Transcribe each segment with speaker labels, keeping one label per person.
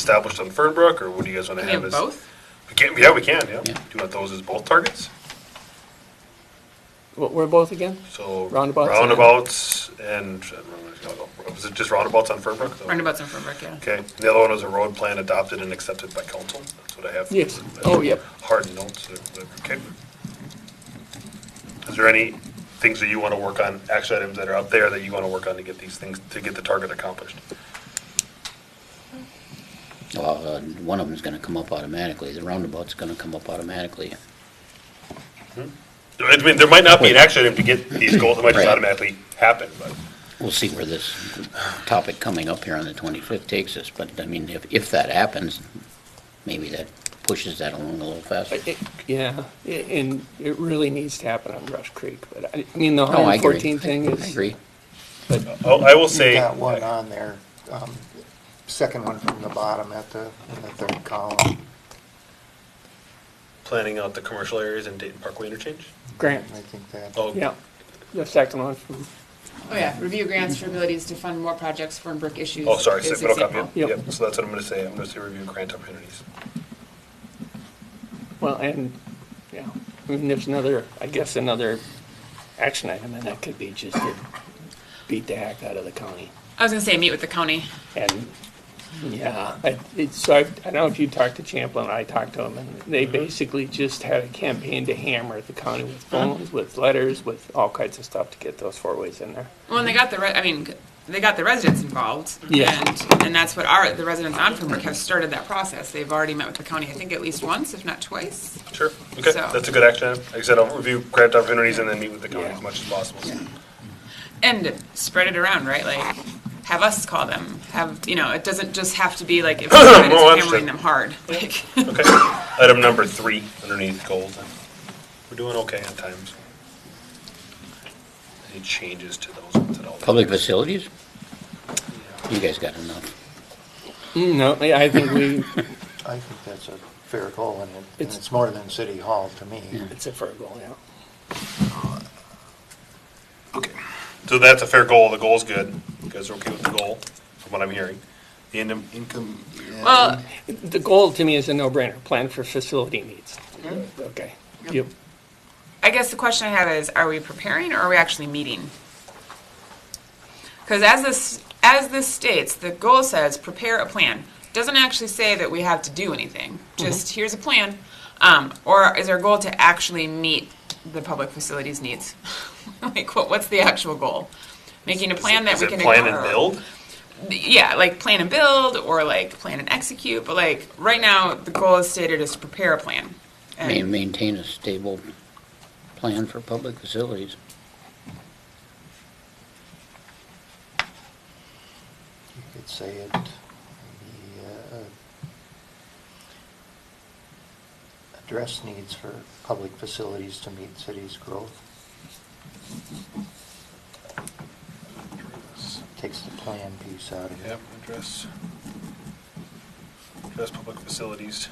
Speaker 1: established on Fernbrook, or what do you guys want to
Speaker 2: Can
Speaker 1: have
Speaker 2: you have
Speaker 1: as?
Speaker 2: both?
Speaker 1: We can, yeah, we can, yeah. Do
Speaker 3: Yeah.
Speaker 1: you want those as both targets?
Speaker 3: What were both again?
Speaker 1: So.
Speaker 3: Roundabouts and-
Speaker 1: Roundabouts and, was it just roundabouts on Fernbrook?
Speaker 2: Roundabouts in Fernbrook, yeah.
Speaker 1: Oh. Okay, and the other one was a road plan adopted and accepted by council, that's what I have.
Speaker 3: Yes. Oh, yep.
Speaker 1: Hard notes, or whatever. okay. Is there any things that you want to work on, action items that are out there that you want to work on to get these things, to get the target accomplished?
Speaker 3: Well, uh, one of them's gonna come up automatically, the roundabout's gonna come up automatically.
Speaker 1: I mean, there might not be an action item to get these goals, it might just
Speaker 3: Right.
Speaker 1: automatically happen, but.
Speaker 3: We'll see where this topic coming up here on the 25th takes us, but I mean, if, if that happens, maybe that pushes that along a little faster.
Speaker 4: It- Yeah, i- and it really needs to happen on Rush Creek, but I, I mean, the
Speaker 3: No, Oh, I agree.
Speaker 4: 114 thing
Speaker 3: I
Speaker 4: is.
Speaker 3: agree.
Speaker 1: Oh, I will say.
Speaker 5: You've got one on there, um, second one from the bottom at the, in the third column.
Speaker 1: planning out the commercial areas in Dayton Parkway interchange?
Speaker 4: Grant,
Speaker 5: I think that,
Speaker 1: Oh,
Speaker 4: yeah, the second one from,
Speaker 2: Oh, yeah, review grants for abilities to fund more projects for Fernbrook issues.
Speaker 1: oh, sorry,
Speaker 2: is
Speaker 1: so middle copy.
Speaker 2: example.
Speaker 4: Yep.
Speaker 1: Yep, so that's what I'm gonna say, I'm gonna say review grant opportunities.
Speaker 4: well, and, yeah, I mean, there's another, I guess, another action item, and that could be just to beat the heck out of the county.
Speaker 2: I was gonna say, meet with the county.
Speaker 4: And, yeah, I, it, so I, I don't know if you talked to Champlin, I talked to him, and they basically just had a campaign to hammer the county with phones, with letters, with all kinds of stuff to get those four ways in there.
Speaker 2: Well, and they got the, re- I mean, they got the residents involved.
Speaker 4: Yeah.
Speaker 2: And, and that's what our, the residents on Fernbrook have started that process. They've already met with the county, I think at least once, if not twice.
Speaker 1: Sure, okay,
Speaker 2: So-
Speaker 1: that's a good action item. Like I said, I'll review grant opportunities and then meet with the county
Speaker 4: Yeah.
Speaker 1: as much as possible.
Speaker 2: And spread it around, right? Like, have us call them, have, you know, it doesn't just have to be like, if we're
Speaker 1: Oh, understood.
Speaker 2: hammering them hard. Like,
Speaker 1: Okay, item number three underneath goals. then. We're doing okay on times. Any changes to those ones at all?
Speaker 3: Public facilities? You guys got enough.
Speaker 4: Mm, No, I I think we,
Speaker 5: I think that's a fair goal, and it- and
Speaker 4: It's-
Speaker 5: it's more than City Hall to me.
Speaker 4: it's a fair goal, yeah.
Speaker 1: Okay, so that's a fair goal, the goal's good. You guys are okay with the goal, from what I'm hearing. The end of-
Speaker 6: Income. yeah.
Speaker 2: Well,
Speaker 4: The goal to me is a no-brainer, plan for facility needs. Okay. Mm-hmm. Yep.
Speaker 2: I guess the question I have is, are we preparing or are we actually meeting? Because as this, as this states, the goal says, prepare a plan. Doesn't actually say that we have to do anything,
Speaker 1: Mm-hmm.
Speaker 2: just here's a plan. Um, or is our goal to actually meet the public facilities needs? Like, what, what's the actual goal? Making a plan that
Speaker 1: Is
Speaker 2: we
Speaker 1: it
Speaker 2: can.
Speaker 1: Plan and
Speaker 2: ignore.
Speaker 1: build?
Speaker 2: Yeah, like plan and build, or like plan and execute, but like, right now, the goal is stated is to prepare a plan. And-
Speaker 3: Ma- Maintain a stable plan for public facilities.
Speaker 5: You could say it, the, uh, address needs for public facilities to meet city's growth. Takes the plan piece out of it.
Speaker 1: Yep, address, address public facilities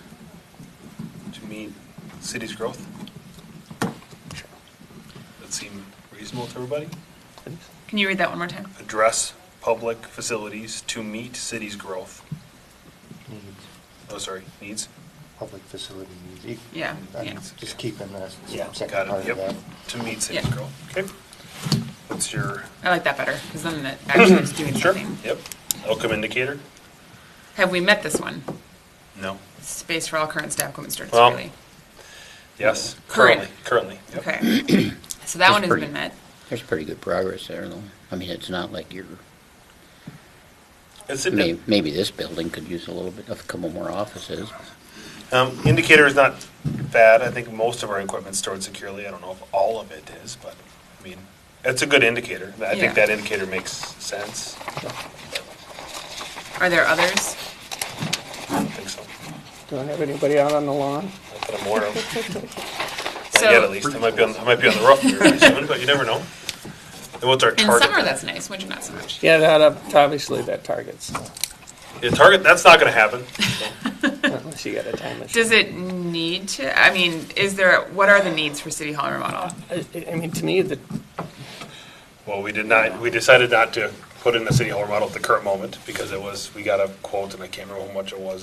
Speaker 1: to meet city's growth. That seem reasonable to everybody?
Speaker 2: Can you read that one more time?
Speaker 1: Address public facilities to meet city's growth.
Speaker 5: Needs,
Speaker 1: Oh, sorry, needs.
Speaker 5: public facility needs. You-
Speaker 2: Yeah,
Speaker 5: I'm
Speaker 2: yeah.
Speaker 5: Just keeping the
Speaker 4: Yeah,
Speaker 5: second
Speaker 1: Got
Speaker 5: part
Speaker 1: it,
Speaker 5: of
Speaker 1: yep,
Speaker 5: that.
Speaker 1: to meet city's
Speaker 2: Yeah.
Speaker 1: growth. Okay. What's your?
Speaker 2: I like that better, because then it actually is doing
Speaker 1: Mm-hmm. Sure,
Speaker 2: something.
Speaker 1: Yep. Outcome indicator?
Speaker 2: Have we met this one?
Speaker 1: No.
Speaker 2: Space for all current staff, Coleman Sturts,
Speaker 1: Well,
Speaker 2: really?
Speaker 1: Yes,
Speaker 2: Current.
Speaker 1: currently, currently. yep.
Speaker 2: Okay. So that
Speaker 3: It's
Speaker 2: one has
Speaker 3: pretty-
Speaker 2: been met.
Speaker 3: There's pretty good progress there, though. I mean, it's not like you're,
Speaker 1: It's,
Speaker 3: may- maybe this building could use a little bit, of a couple more offices.
Speaker 1: Um, indicator is not bad. I think most of our equipment's stored securely. I don't know if all of it is, but, I mean, it's a good indicator. I
Speaker 2: Yeah.
Speaker 1: think that indicator makes sense.
Speaker 2: Are there others?
Speaker 1: I don't think so.
Speaker 4: Don't have anybody out on the lawn?
Speaker 1: Not that I'm aware of. Not yet, at
Speaker 2: So,
Speaker 1: least. I might be on, I might be on the rough here pretty soon, but you never know. And what's our
Speaker 2: in
Speaker 1: target?
Speaker 2: summer, that's nice, winter not so much.
Speaker 4: Yeah, that, uh, obviously that targets,
Speaker 1: Yeah, target, that's not gonna happen. so.
Speaker 4: unless you got a time machine.
Speaker 2: Does it need to, I mean, is there, what are the needs for City Hall remodel?
Speaker 4: I I mean, to me, the,
Speaker 1: Well, we did not, we decided not to put in the city hall remodel at the current moment, because it was, we got a quote, and I can't remember how much it was,